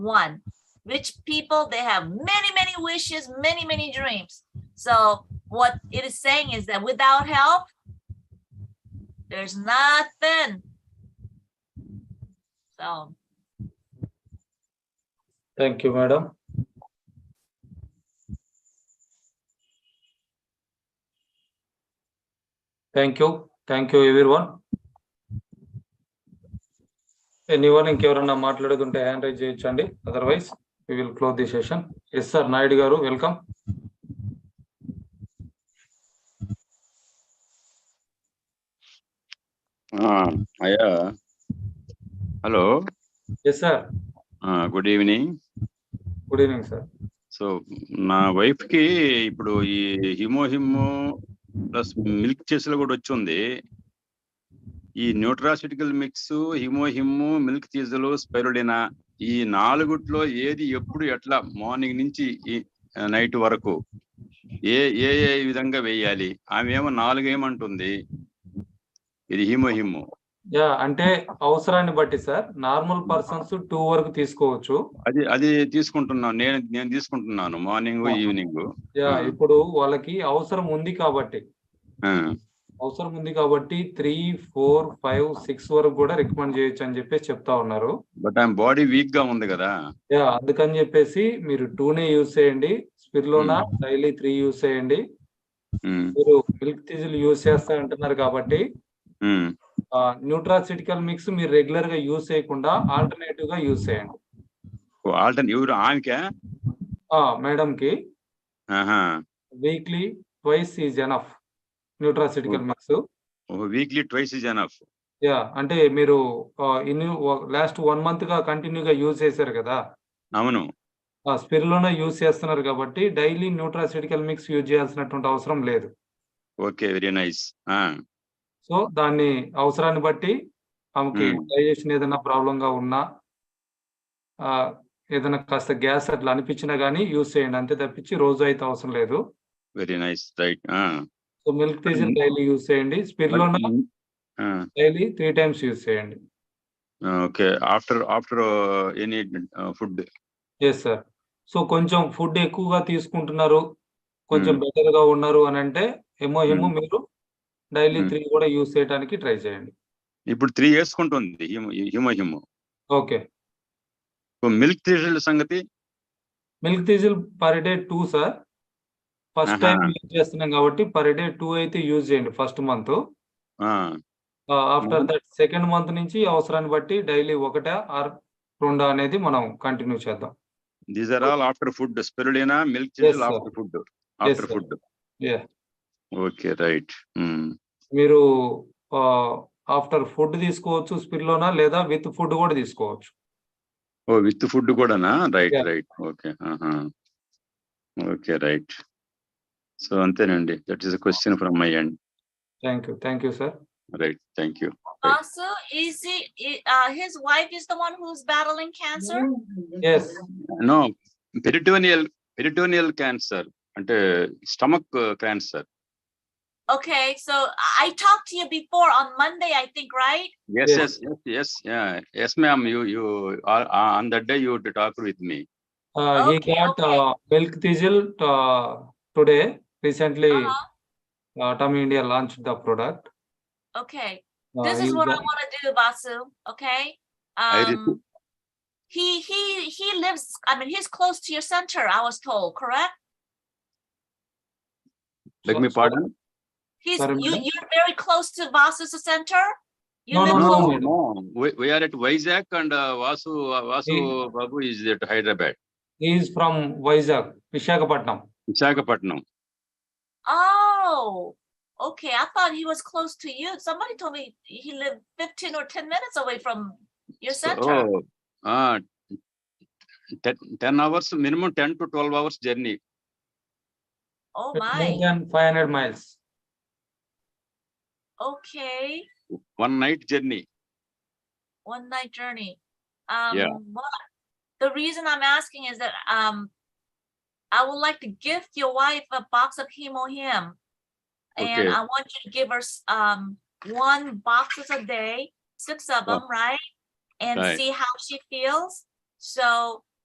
one. Rich people, they have many, many wishes, many, many dreams. So what it is saying is that without help, there's nothing. So Thank you, madam. Thank you, thank you everyone. Anyone ఇంకెవరన్నా మాట్లాడుకుంటే hand raise చేయొచ్చండి otherwise we will close the session yes sir Naidu గారు welcome ఆ, అయ్యా hello yes sir ఆ, good evening good evening sir so నా wife కి ఇప్పుడు ఈ హిమో హిమో ప్లస్ మిల్క్ చేసిలో కూడా వచ్చింది ఈ న్యూట్రాసిటికల్ మిక్స్ హిమో హిమ్ము మిల్క్ చీజలు స్పెరుడినా ఈ నాలుగుట్లో ఏది ఎప్పుడు ఎట్లా మార్నింగ్ నుంచి ఈ నైట్ వరకు ఏ ఏ ఏ విధంగా వేయాలి ఆమె ఏమో నాలుగు ఏమంటుంది ఇది హిమో హిమ్ము యా అంటే అవసరాన్ని బట్టి సార్ నార్మల్ పర్సన్స్ టూ వరకు తీసుకోవచ్చు అది అది తీసుకుంటున్నాను నేను నేను తీసుకుంటున్నాను మార్నింగ్ ఈవినింగ్ యా ఆ. ఇప్పుడు వాళ్ళకి అవసరం ఉంది కాబట్టి అవసరం ఉంది కాబట్టి త్రీ ఫోర్ ఫైవ్ సిక్స్ వరకు కూడా రికమెండ్ చేయొచ్చు అని చెప్పేసి చెప్తా ఉన్నారు బట్ ఐఎమ్ బాడీ వీక్ గా ఉంది కదా యా అందుకని చెప్పేసి మీరు టూనే యూజ్ చేయండి స్పిర్లోనా డైలీ త్రీ యూజ్ చేయండి ఉమ్, మీరు మిల్క్ తీజులు యూజ్ చేస్తా అంటున్నారు కాబట్టి ఉమ్, న్యూట్రాసిటికల్ మిక్స్ మీరు రెగ్యులర్ గా యూజ్ చేయకుండా ఆల్టర్నేటివ్ గా యూజ్ చేయండి ఓ, ఆల్టర్న్ ఎవరు ఆమెకే ఆ మేడం కి ఆహా. Weekly twice is enough nutraceutical mix oh weekly twice is enough yeah అంటే మీరు ఇన్ లాస్ట్ వన్ మంత్ గా కంటిన్యూగా యూజ్ చేశారు కదా అవును ఆ స్పిరులోనే యూజ్ చేస్తున్నారు కాబట్టి డైలీ న్యూట్రాసిటికల్ మిక్స్ యూజ్ చేయాల్సినటువంటి అవసరం లేదు ఓకే వెరీ నైస్ సో దాన్ని అవసరాన్ని బట్టి ఆమెకి Hmm. డైజెషన్ ఏదైనా ప్రాబ్లం గా ఉన్నా ఆ, ఏదైనా కాస్త గ్యాస్ అట్లా అనిపించినా గానీ యూజ్ చేయండి అంతే తప్పించి రోజు అయితే అవసరం లేదు very nice right so milk తీసిన డైలీ యూజ్ చేయండి spirulina daily three times use చేయండి okay after after any food yes sir so కొంచెం ఫుడ్ ఎక్కువగా తీసుకుంటున్నారు కొంచెం బెటర్ గా ఉన్నారు అని అంటే ఏమో ఏమో మీరు డైలీ Hmm. త్రీ కూడా యూజ్ చేయడానికి ట్రై చేయండి ఇప్పుడు త్రీ వేసుకుంటుంది హిమో హిమో ఓకే మిల్క్ తీసిన సంగతి మిల్క్ తీసిల్ per day two sir first time Aha. Use చేస్తున్నాం కాబట్టి పర్ డే టూ అయితే యూజ్ చేయండి ఫస్ట్ మంత్ ఆ, ఆఫ్టర్ దట్ సెకండ్ మంత్ నుంచి అవసరాన్ని బట్టి డైలీ ఒకటే ఆర్ రెండా అనేది మనం కంటిన్యూ చేద్దాం these are all after food స్పెరుడేనా మిల్క్ Yes, చేసి sir. After food after sir. Food Yeah. Okay right Hmm. మీరు ఆఫ్టర్ ఫుడ్ తీసుకోవచ్చు స్పిల్లోనా లేదా విత్ ఫుడ్ కూడా తీసుకోవచ్చు Oh, ఓ విత్ ఫుడ్ కూడానా right Yeah. Right okay uh-huh. Okay right so అంతేనండి that is a question from my end thank you thank you sir right thank you Basu, is he, uh, his wife is the one who's battling cancer? Yes no peritoneal peritoneal cancer అంటే stomach uh, cancer Okay, so I- I talked to you before on Monday, I think, right? Yes Yes. Yes yes yes yes ma'am you you uh, on that day you talk with me he Okay, got okay. Milk thistle today recently Uh-huh. టమ్ India launch the product Okay, Uh, this is what I wanna do, Basu, okay? did- Um, he, he, he lives, I mean, he's close to your center, I was told, correct? Let me pardon He's, Sorry, you, madam? you're very close to Vasu's center? You No, live no, No, close- no, no. We, we are at Vizag and uh, Vasu, Vasu Babu is at Hyderabad, is from Vizag Visakhapatnam Visakhapatnam. Oh, okay, I thought he was close to you, somebody told me he lived fifteen or ten minutes away from your center. Oh, ah, ten, ten hours, minimum ten to twelve hours journey. Oh, more my, than five hundred miles okay. One night journey. one night journey. Um, but the reason I'm asking is that, um, I would like to gift your wife a box of Himo Him. And Okay. I want you to give her, s- um, one boxes a day, six of Oh. them, right? And Right. see how she feels. So